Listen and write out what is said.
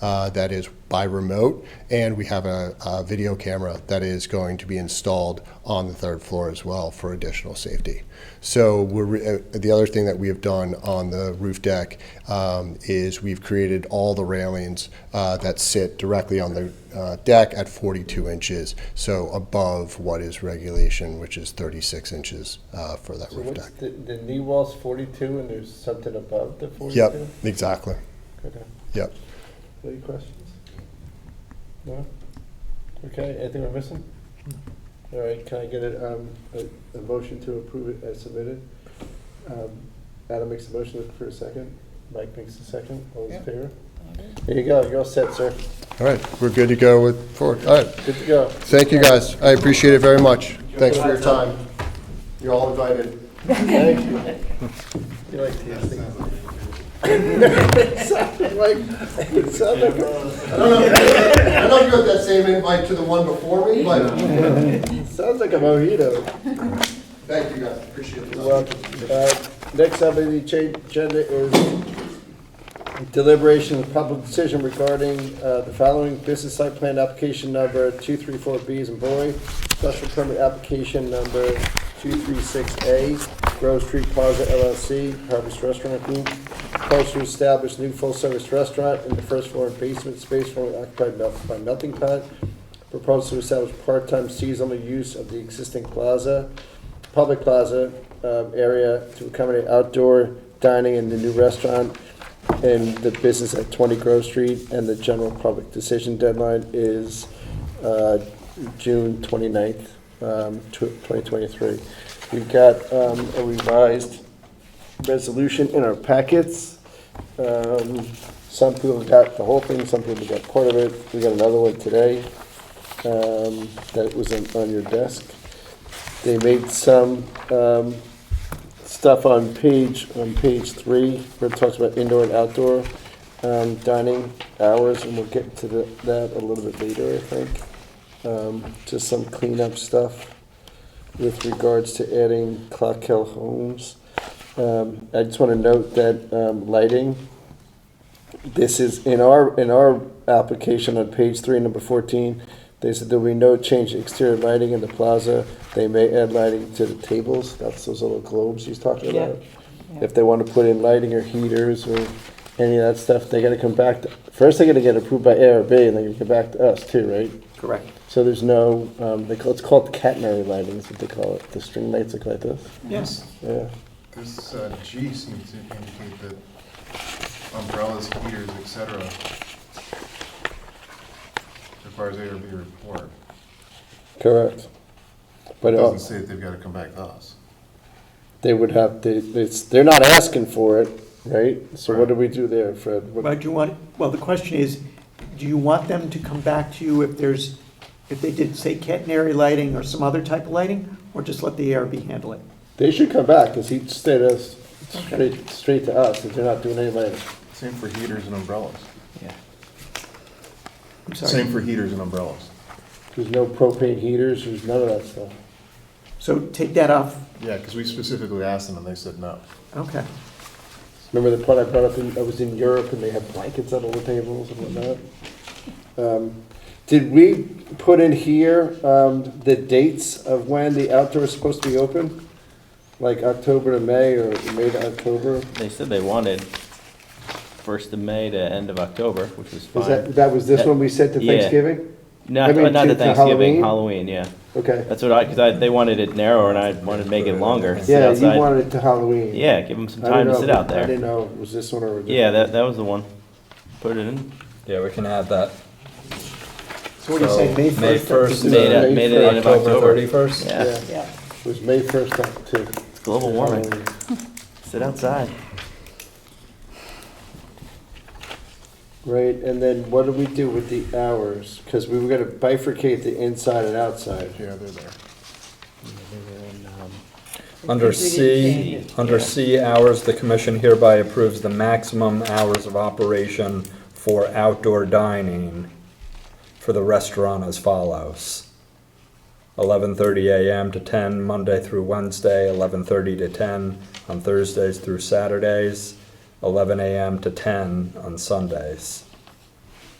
uh, that is by remote, and we have a, a video camera that is going to be installed on the third floor as well for additional safety. So we're re- uh, the other thing that we have done on the roof deck um, is we've created all the railings uh, that sit directly on the uh, deck at 42 inches, so above what is regulation, which is 36 inches uh, for that So roof what's deck. the, the knee wall's forty-two and there's something above the forty-two? Yep, exactly. Okay. Yep. Any questions? No? Okay, anything we're missing? All right, can I get a, um, a, a motion to approve it as submitted? Um, Adam makes a motion, look for a second. Mike makes a second, all those in favor? There you go, you're all set, sir. All right, we're good to go with forward. All right. Good to go. Thank you, guys. I appreciate it very much. Thanks for your time. You're all invited. Thank you. You like tasting. Sounded like, it sounded like a- I don't know, I don't know if you got that same invite to the one before me, but Sounds like a mojito. thank you, guys. Appreciate it. Well, uh, next up on the cha- agenda is deliberation of public decision regarding uh, the following business site plan application number 234B as in boy, special permit application number 236A, Grove Street Plaza LLC, Harvest Restaurant Group, proposed to establish new full-service restaurant in the first floor and basement space formerly occupied melt- by Melting Pot, proposed to establish part-time seasonal use of the existing plaza, public plaza um, area to accommodate outdoor dining in the new restaurant and the business at 20 Grove Street, and the general public decision deadline is uh, June 29th, um, tw- 2023. We got um, a revised resolution in our packets. Um, Some people got the whole thing, some people got part of it. We got another one today um, that was on- on your desk. They made some um, stuff on page, on page three, where it talks about indoor and outdoor um, dining hours, and we'll get to the- that a little bit later, I think. Um, Just some cleanup stuff with regards to adding Clock Hill Homes. Um, I just want to note that um, lighting, this is, in our, in our application on page three, number fourteen, they said there will be no change to exterior lighting in the plaza. They may add lighting to the tables, that's those little globes he's talking Yeah. about. If they want to put in lighting or heaters or any of that stuff, they gotta come back, to- first they gotta get approved by ARB, and they're gonna come back to us too, right? Correct. So there's no, um, they call, it's called catenary lighting, is what they call it, the string lights look like this, Yes. yeah. This uh, G seems to indicate that umbrellas, heaters, et cetera, requires ARB report. Correct. But It uh, doesn't say that they've got to come back to us. they would have, they, it's, they're not asking for it, right? So what do we do there, Fred? What- But do you want, well, the question is, do you want them to come back to you if there's, if they did, say, catenary lighting or some other type of lighting? Or just let the ARB handle it? They should come back, because he stayed us, straight, straight to us, if they're not doing any lighting. Same for heaters and umbrellas. Yeah. I'm Same sorry. for heaters and umbrellas. There's no propane heaters, there's none of that stuff. So take that off. Yeah, because we specifically asked them and they said no. Okay. Remember the part I brought up, in- I was in Europe and they had blankets on all the tables and whatnot? Um, Did we put in here um, the dates of when the outdoor is supposed to be open? Like October to May or May to October? They said they wanted first of May to end of October, which was Is that, fine. that was this That- one we sent to yeah. Thanksgiving? I Not, mean, not to- the to Thanksgiving, Halloween? Halloween, yeah. Okay. That's what I, because I, they wanted it narrower and I wanted to make it longer. sit Yeah, you outside. wanted it to Halloween. Yeah, give them some I didn't time to know- sit out I there. didn't know, it was this one or? a different Yeah, that, that was the one. Put it in. Yeah, we can add that. So what do you say, May 1st? So, May up to 1st, the- Made it, made it end of October October. thirty-first? Yeah, Yeah, Yeah. It was May 1st up to. it's global warming. Halloween. Sit outside. Right, and then what do we do with the hours? Because we were gonna bifurcate the inside and outside. Yeah, they're there. Under C, under C hours, the commission hereby approves the maximum hours of operation for outdoor dining for the restaurant as follows. Eleven thirty AM to ten, Monday through Wednesday, eleven thirty to ten on Thursdays through Saturdays, eleven AM to ten on Sundays.